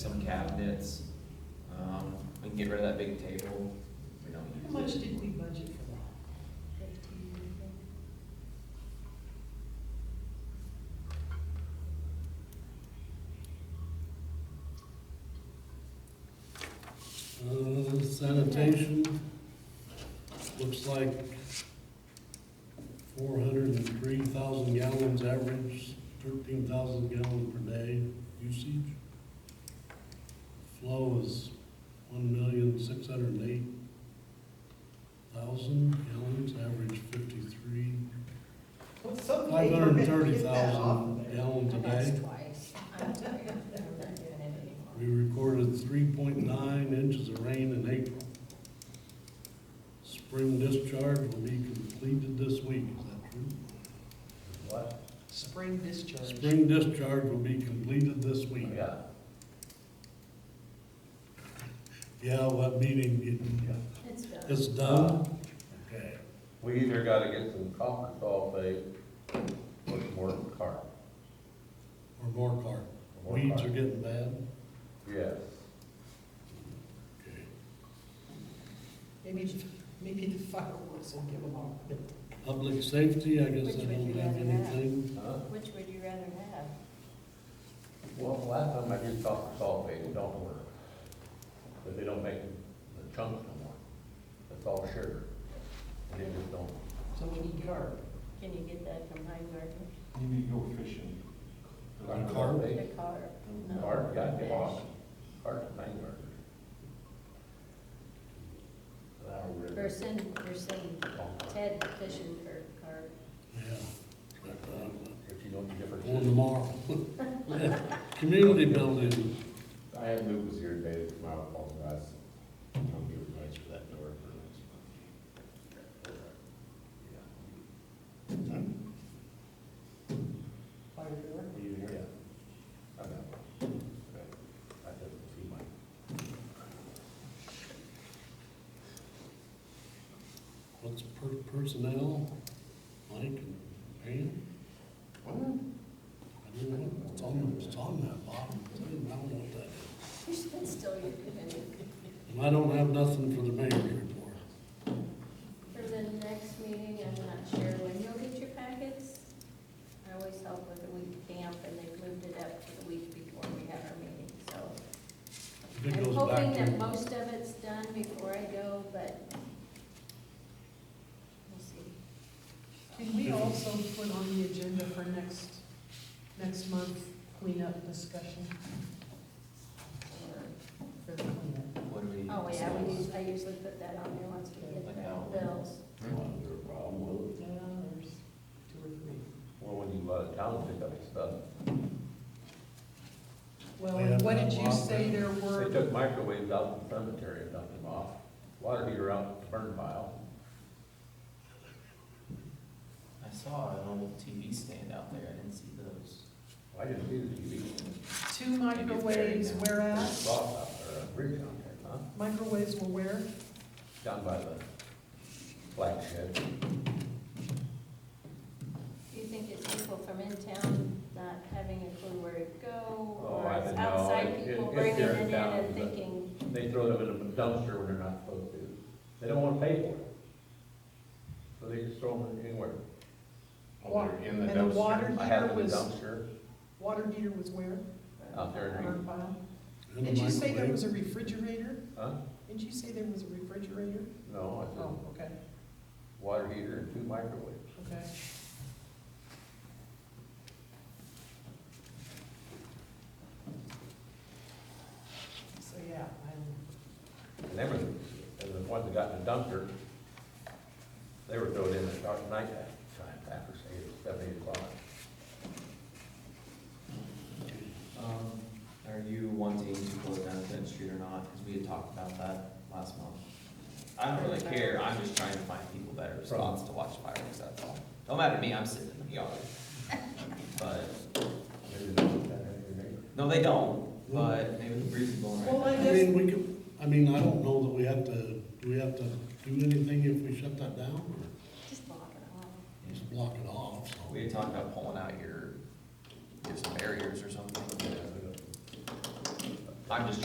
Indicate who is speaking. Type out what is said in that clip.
Speaker 1: cabinets. Um, we can get rid of that big table, we don't use it.
Speaker 2: How much did we budget for that?
Speaker 3: Uh, Sanitation, looks like four hundred and three thousand gallons average, thirteen thousand gallons per day usage. Flow is one million, six hundred and eight thousand gallons, average fifty-three,
Speaker 2: Well, someday
Speaker 3: five
Speaker 2: we're
Speaker 3: hundred and
Speaker 2: gonna
Speaker 3: thirty
Speaker 2: get that off of
Speaker 3: thousand
Speaker 2: there.
Speaker 3: gallons a day.
Speaker 4: That's twice. I'm tired. I'm not doing it anymore.
Speaker 3: We recorded three point nine inches of rain in April. Spring discharge will be completed this week, is that true?
Speaker 5: What?
Speaker 2: Spring discharge.
Speaker 3: Spring discharge will be completed this week.
Speaker 5: Yeah.
Speaker 3: Yeah, what meeting,
Speaker 4: It's done.
Speaker 3: it's done? Okay.
Speaker 5: We either gotta get some concrete off it, or some more car.
Speaker 3: Or more car.
Speaker 5: or more
Speaker 3: Weeds
Speaker 5: car.
Speaker 3: are getting bad.
Speaker 5: Yes.
Speaker 3: Okay.
Speaker 2: Maybe, maybe the fireworks will give them all.
Speaker 3: Public safety, I guess I
Speaker 4: Which would
Speaker 3: don't
Speaker 4: you
Speaker 3: have
Speaker 4: rather have?
Speaker 3: anything.
Speaker 5: Huh?
Speaker 4: Which would you rather have?
Speaker 5: Well, the last time I did concrete sulfate, it don't work. But they don't make the chunks no more. It's all sugar. And it just don't.
Speaker 2: So we need carb.
Speaker 4: Can you get that from Heimgartner?
Speaker 6: You need to go fishing.
Speaker 5: Concrete
Speaker 3: Car?
Speaker 5: sulfate,
Speaker 4: The car? No.
Speaker 5: Car, yeah, get off.
Speaker 4: Fish.
Speaker 5: Hard to make work. Now, we're-
Speaker 4: Or send, or send Ted fishing for carp.
Speaker 3: Yeah.
Speaker 5: If you know the
Speaker 3: One
Speaker 5: difference.
Speaker 3: tomorrow. Community building,
Speaker 7: I had Luke was here today to come out and apologize. I'll give advice for that door for next month.
Speaker 2: Fire door.
Speaker 5: Are you here? I'm out. Okay. I didn't see mine.
Speaker 3: what's per- personnel, Mike and Pam? I don't know, it's on, it's on that bottom, I don't know what that is.
Speaker 4: That's still your committee.
Speaker 3: And I don't have nothing for the mayor's report.
Speaker 4: For the next meeting, I'm not sure when you'll get your packets. I always help with the week camp and they've moved it up to the week before we have our meeting, so.
Speaker 3: It
Speaker 4: I'm
Speaker 3: goes
Speaker 4: hoping
Speaker 3: back
Speaker 4: that
Speaker 3: to,
Speaker 4: most of it's done before I go, but we'll see.
Speaker 2: Can we also put on the agenda for next, next month cleanup discussion? For the cleanup.
Speaker 1: What do we?
Speaker 4: Oh, yeah, we usually, I usually put that on there once we get the bills.
Speaker 5: Is there a problem with it?
Speaker 2: Yeah, there's two or three.
Speaker 5: Well, when you go out of town, pick up your stuff.
Speaker 2: Well,
Speaker 3: We
Speaker 2: and
Speaker 3: have
Speaker 2: what
Speaker 3: not
Speaker 2: did you
Speaker 3: lost
Speaker 2: say
Speaker 3: that.
Speaker 2: there
Speaker 5: They
Speaker 2: were?
Speaker 5: took microwaves out in the cemetery and dumped them off. Water heater out in the burn pile.
Speaker 1: I saw an old TV stand out there, I didn't see those.
Speaker 5: I didn't see the TV.
Speaker 2: Two microwaves,
Speaker 1: Maybe it's
Speaker 2: where at?
Speaker 5: There's a lot out there, a bridge down there, huh?
Speaker 2: Microwaves were where?
Speaker 5: Down by the flag shed.
Speaker 4: Do you think it's people from in town not having a clue where to go?
Speaker 5: Oh,
Speaker 4: Or
Speaker 5: I
Speaker 4: it's
Speaker 5: don't know. It-
Speaker 4: outside
Speaker 5: it-
Speaker 4: people
Speaker 5: it's
Speaker 4: bringing
Speaker 5: here
Speaker 4: it
Speaker 5: in
Speaker 4: in
Speaker 5: town,
Speaker 4: and
Speaker 5: but-
Speaker 4: thinking,
Speaker 5: They throw them in a dumpster when they're not supposed to. They don't wanna pay for it. So they just throw them anywhere.
Speaker 7: Well, they're in the
Speaker 2: And the water
Speaker 7: dumpster.
Speaker 5: I have
Speaker 2: heater
Speaker 5: them in a
Speaker 2: was,
Speaker 5: dumpster
Speaker 2: water heater was where?
Speaker 5: out there in
Speaker 2: Burn
Speaker 5: Green-
Speaker 2: pile?
Speaker 3: in the
Speaker 2: Did you say there was
Speaker 3: microwave.
Speaker 2: a refrigerator?
Speaker 5: huh?
Speaker 2: Didn't you say there was a refrigerator?
Speaker 5: No, I
Speaker 2: Oh,
Speaker 5: said
Speaker 2: okay,
Speaker 5: water heater and two microwaves.
Speaker 2: okay. So, yeah, I'm,
Speaker 5: And they were, and the ones that got in the dumpster, they were throwing in the dark night at time, after say seven, eight o'clock.
Speaker 1: Um, are you wanting to close down Clinton Street or not? Cause we had talked about that last month. I don't really care, I'm just trying to find people better spots to watch fireworks, that's all. Don't matter to me, I'm sitting in the yard. But,
Speaker 5: Maybe they looked at it, maybe they-
Speaker 1: no, they don't, but maybe the breeze is blowing
Speaker 2: Well,
Speaker 1: right
Speaker 2: I-
Speaker 1: now.
Speaker 3: I mean, we could, I mean, I don't know that we have to, do we have to do anything if we shut that down or
Speaker 4: just block it off.
Speaker 3: just block it off, so.
Speaker 1: We had talked about pulling out your, give some barriers or something.
Speaker 5: they don't-
Speaker 1: I'm just